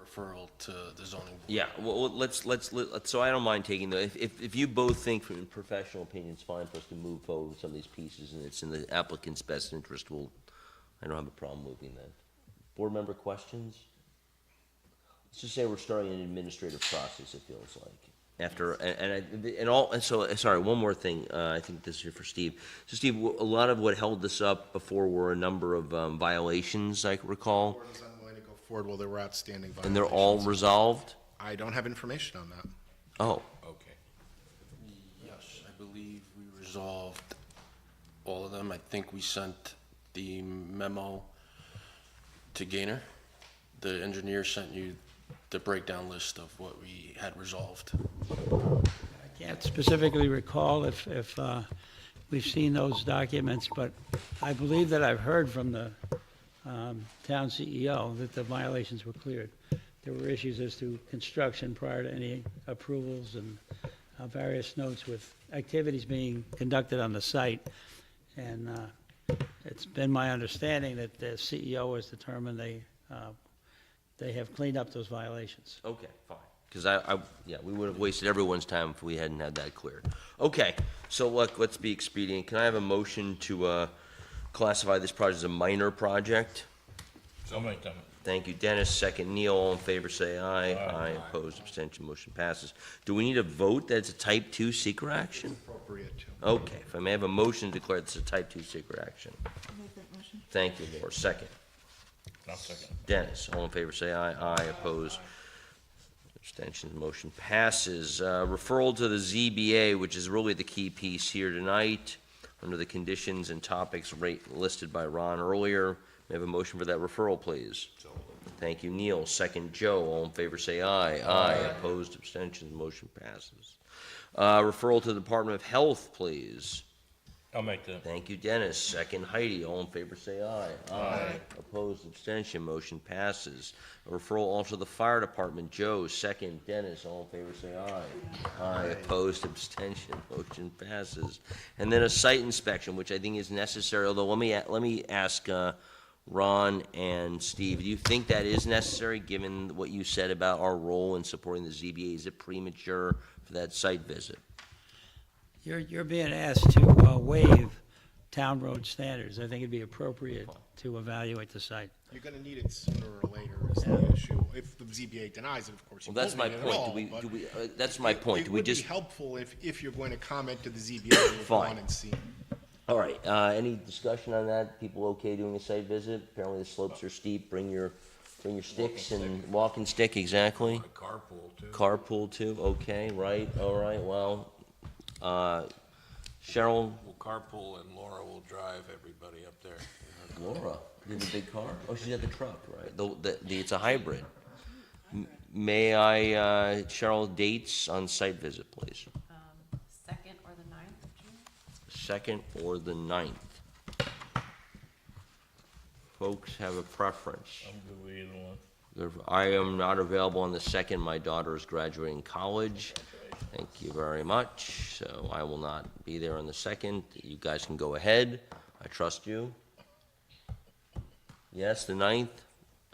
referral to the zoning board. Yeah, well, well, let's, let's, let- so I don't mind taking the, if, if, if you both think from your professional opinion, it's fine for us to move forward with some of these pieces, and it's in the applicant's best interest, we'll, I don't have a problem moving that. Board member questions? Let's just say we're starting an administrative process, it feels like, after, and, and I, and all, and so, sorry, one more thing, uh, I think this is for Steve. So Steve, a lot of what held this up before were a number of um, violations, I recall, Board was unwilling to go forward while there were outstanding violations. and they're all resolved? I don't have information on that. Oh, Okay. Yes, I believe we resolved all of them. I think we sent the memo to Gainer. The engineer sent you the breakdown list of what we had resolved. I can't specifically recall if, if uh, we've seen those documents, but I believe that I've heard from the um, town CEO that the violations were cleared. There were issues as to construction prior to any approvals and uh, various notes with activities being conducted on the site. And uh, it's been my understanding that the CEO has determined they, uh, they have cleaned up those violations. Okay, fine. Because I, I, yeah, we would have wasted everyone's time if we hadn't had that cleared. Okay, so look, let's be expedient. Can I have a motion to, uh, classify this project as a minor project? So many times. Thank you, Dennis. Second, Neil. All in favor, say aye. Aye. Aye, opposed, abstention, motion passes. Do we need a vote that it's a type two secret action? Appropriate to. Okay, if I may have a motion to declare this a type two secret action. Make that motion. Thank you, Laura. Second. I'll second. Dennis, all in favor, say aye. Aye, opposed. Abstentions, motion passes. Uh, Referral to the ZBA, which is really the key piece here tonight, under the conditions and topics rate listed by Ron earlier. May I have a motion for that referral, please? Thank you, Neil. Second, Joe. All in favor, say aye. Aye, opposed, abstentions, motion passes. Uh, Referral to the Department of Health, please. I'll make that. Thank you, Dennis. Second, Heidi. All in favor, say aye. Aye. Opposed, abstention, motion passes. A Referral also to the fire department. Joe, second. Dennis, all in favor, say aye. Aye. Opposed, abstention, motion passes. And then a site inspection, which I think is necessary, although let me, a- let me ask, uh, Ron and Steve, do you think that is necessary, given what you said about our role in supporting the ZBA? Is it premature for that site visit? You're, you're being asked to uh, waive town road standards. I think it'd be appropriate to evaluate the site. You're gonna need it sooner or later is the issue. If the ZBA denies it, of course, you Well, won't that's need my it at point. Do all. we, but do we, uh, that's my point. It Do we would be just? helpful if, if you're going to comment to the ZBA, you've Fine. gone and seen. All right, uh, any discussion on that? People okay doing a site visit? Apparently the slopes are steep, bring your, bring your sticks and walking stick, exactly. Carpool too. Carpool too, okay, right, all right, well, uh, Cheryl, We'll carpool and Laura will drive everybody up there. Laura, you have a big car? Oh, she's at the truck, right? The, the, the, it's a hybrid. M- May I, uh, Cheryl, dates on site visit, please? second or the ninth of June? Second or the ninth? Folks have a preference. I'm good with either one. There- I am not available on the second. My daughter is graduating college. Thank you very much. So I will not be there on the second. You guys can go ahead. I trust you. Yes, the ninth?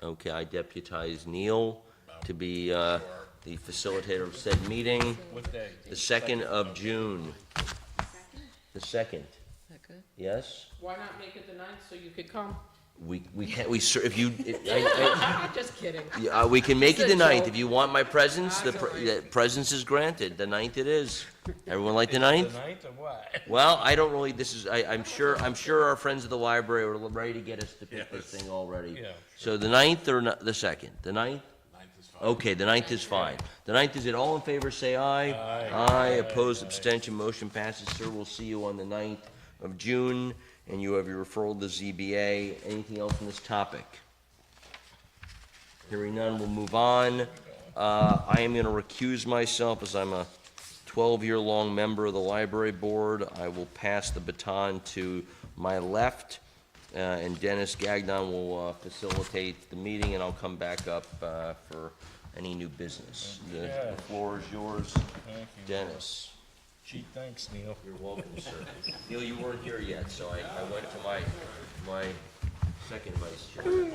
Okay, I deputize Neil to be uh, the facilitator of said meeting. What day? The second of June. The second, yes? Why not make it the ninth so you could come? We, we can't, we, cer- if you, if- I, I, Just kidding. Yeah, uh, we can make it the It's a ninth, joke. if you want my presence, Ah, the, it's pre- all right. the presence is granted, the ninth it is. Everyone like the The ninth? ninth or what? Well, I don't really, this is, I, I'm sure, I'm sure our friends at the library are ready to get us to pick this thing already. Yeah, So the ninth or not, the second, the ninth? Ninth is fine. Okay, the ninth is fine. The ninth is it, all in favor, say aye. Aye. Aye, opposed, Aye. abstention, motion passes, sir, we'll see you on the ninth of June, and you have your referral to ZBA, anything else on this topic? Hearing none, we'll move on. Uh, I am gonna recuse myself as I'm a twelve-year-long member of the library board. I will pass the baton to my left, uh, and Dennis Gagnon will uh, facilitate the meeting, and I'll come back up, uh, for any new business. The the floor is yours, thank you. Dennis. Gee, thanks, Neil. You're welcome, sir. Neil, you weren't here yet, so I, I went to my, my second vice chair.